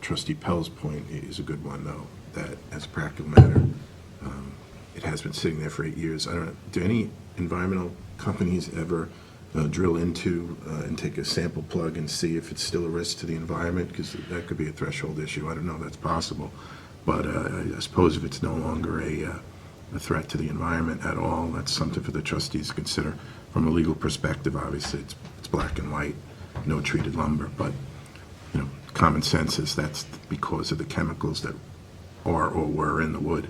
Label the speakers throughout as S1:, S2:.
S1: trustee Pell's point i- is a good one, though, that as a practical matter, um, it has been sitting there for eight years. I don't, do any environmental companies ever uh, drill into uh, and take a sample plug and see if it's still a risk to the environment? Because that could be a threshold issue. I don't know, that's possible. But uh, I- I suppose if it's no longer a, uh, a threat to the environment at all, that's something for the trustees to consider. From a legal perspective, obviously, it's, it's black and white, no treated lumber, but you know, common sense is that's because of the chemicals that are or were in the wood.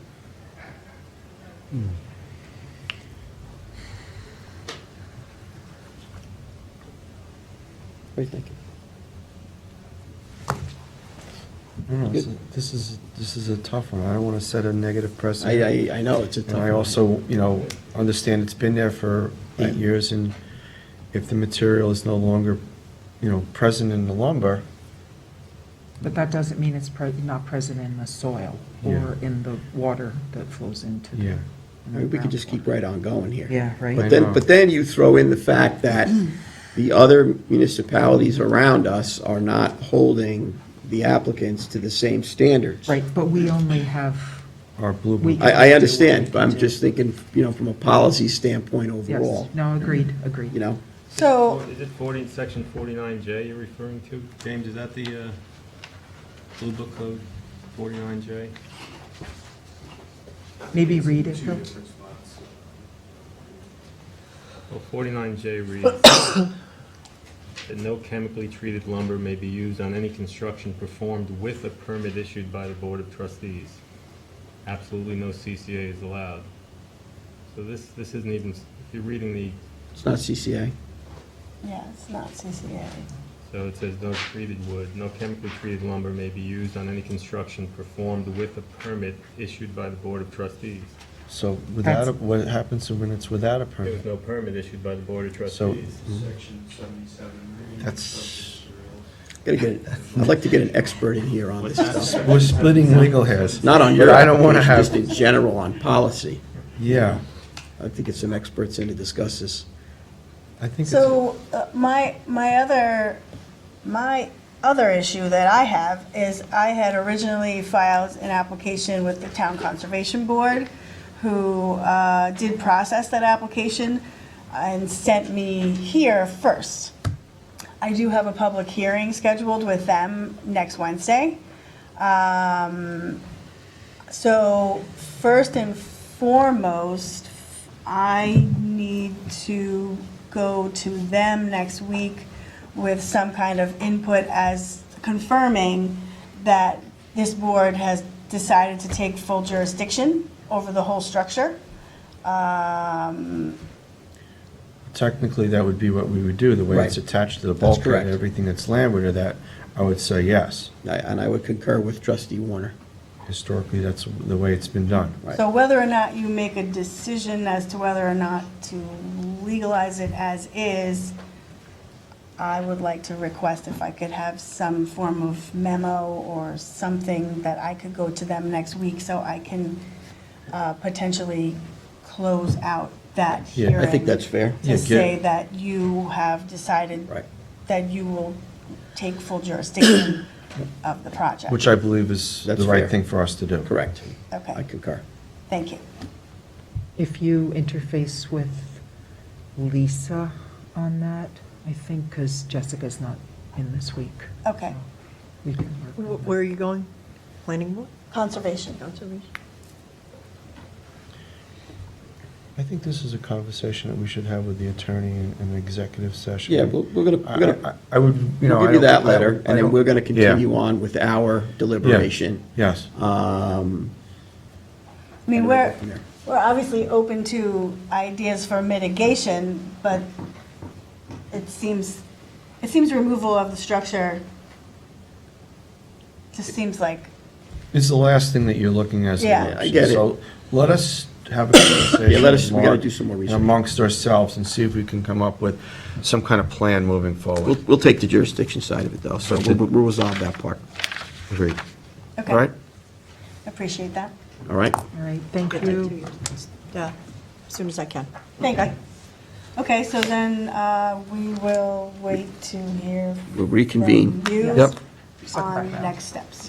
S2: What do you think?
S3: I don't know, this is- This is, this is a tough one. I don't want to set a negative precedent.
S2: I, I, I know, it's a tough
S3: And I
S2: one.
S3: also, you know, understand it's been there for
S2: Right.
S3: eight years, and if the material is no longer, you know, present in the lumber,
S4: But that doesn't mean it's pre- not present in the soil or in the water that flows into the.
S3: yeah.
S4: in the
S2: I mean, We could just keep
S4: groundwater.
S2: right on going here.
S4: Yeah,
S2: But
S4: right.
S3: know.
S2: then, but then you throw in the fact that the other municipalities around us are not holding the applicants to the same standards.
S4: Right, but we only have,
S3: Our
S4: We-
S3: blue,
S2: I, I
S4: Do
S2: understand,
S4: what
S2: but
S4: we
S2: I'm
S4: do.
S2: just thinking, you know, from a policy standpoint
S4: yes,
S2: overall,
S4: no, agreed, agreed.
S2: you know?
S5: So,
S6: Is it 40, section 49J you're referring to? James, is that the uh, Blue Book Code, 49J?
S4: Maybe read it, Bill.
S6: Well, 49J reads that no chemically treated lumber may be used on any construction performed with a permit issued by the Board of Trustees. Absolutely no CCA is allowed. So this, this isn't even, if you're reading the,
S2: It's not CCA.
S5: yeah, it's not CCA.
S6: so it says no treated wood, no chemically treated lumber may be used on any construction performed with a permit issued by the Board of Trustees.
S3: so without, a-
S4: That's-
S3: what happens when it's without a
S6: There
S3: permit?
S6: was no permit issued by the Board of
S3: So-
S6: Trustees.
S7: Section seventy-seven. reading
S3: That's-
S7: subject to rules.
S2: Gotta get, I'd like to get an expert in here on this stuff.
S3: We're splitting legal hairs.
S2: Not on your
S3: But I don't wanna
S2: application,
S3: have-
S2: just in general on policy.
S3: Yeah,
S2: I'd like to get some experts in to discuss this.
S3: I think it's.
S5: So uh, my, my other, my other issue that I have is I had originally filed an application with the Town Conservation Board, who uh, did process that application and sent me here first. I do have a public hearing scheduled with them next Wednesday. Um, So first and foremost, I need to go to them next week with some kind of input as confirming that this board has decided to take full jurisdiction over the whole structure. Um,
S3: Technically, that would be what we would do, the way it's
S2: Right.
S3: attached to the
S2: That's
S3: bulkhead,
S2: correct.
S3: and everything that's landward of that, I would say yes.
S2: I- And I would concur with trustee Warner.
S3: Historically, that's the way it's been done.
S2: Right.
S5: So whether or not you make a decision as to whether or not to legalize it as is, I would like to request if I could have some form of memo or something that I could go to them next week so I can uh, potentially close out that
S3: Yeah, I
S5: hearing.
S2: I think that's fair.
S3: Yeah,
S5: To
S3: get-
S5: say that you have decided
S2: Right.
S5: that you will take full jurisdiction of the project.
S3: Which I believe is the
S2: That's
S3: right
S2: fair.
S3: thing for us to do.
S2: Correct. I
S5: Okay,
S2: concur.
S5: thank you.
S4: If you interface with Lisa on that, I think, because Jessica's not in this week.
S5: Okay,
S4: We can work on that.
S8: Where are you going? Planning board,
S5: conservation.
S8: conservation?
S3: I think this is a conversation that we should have with the attorney in in an executive session.
S2: Yeah, we're we're gonna,
S3: I-
S2: we're gonna,
S3: I I would, you know.
S2: we'll
S3: I
S2: give you that
S3: don't- I
S2: letter,
S3: don't- I
S2: and then
S3: don't-
S2: we're gonna
S3: Yeah.
S2: continue on with our
S3: Yeah.
S2: deliberation.
S3: Yes.
S2: Um,
S5: I
S2: And
S5: mean,
S2: we'll go
S5: we're,
S2: from there.
S5: we're obviously open to ideas for mitigation, but it seems, it seems removal of the structure just seems like,
S3: It's the last thing that you're looking at. as an
S5: Yeah.
S3: option.
S2: I get it.
S3: So let us have a conversation.
S2: Yeah, let us- we gotta
S3: among-
S2: do some more research.
S3: Amongst ourselves and see if we can come up with some kind of plan moving
S2: We'll,
S3: forward.
S2: we'll take the jurisdiction side of it, though, so we'll, we'll resolve that part.
S3: Agreed.
S5: okay.
S2: All right?
S5: Appreciate that.
S2: All right?
S4: All right, thank
S8: Get that to
S4: you.
S8: you, Yeah, as soon as I can.
S5: Thank you. Okay, so then uh, we will wait to hear
S2: We'll reconvene.
S5: from you
S2: Yep.
S5: on next steps.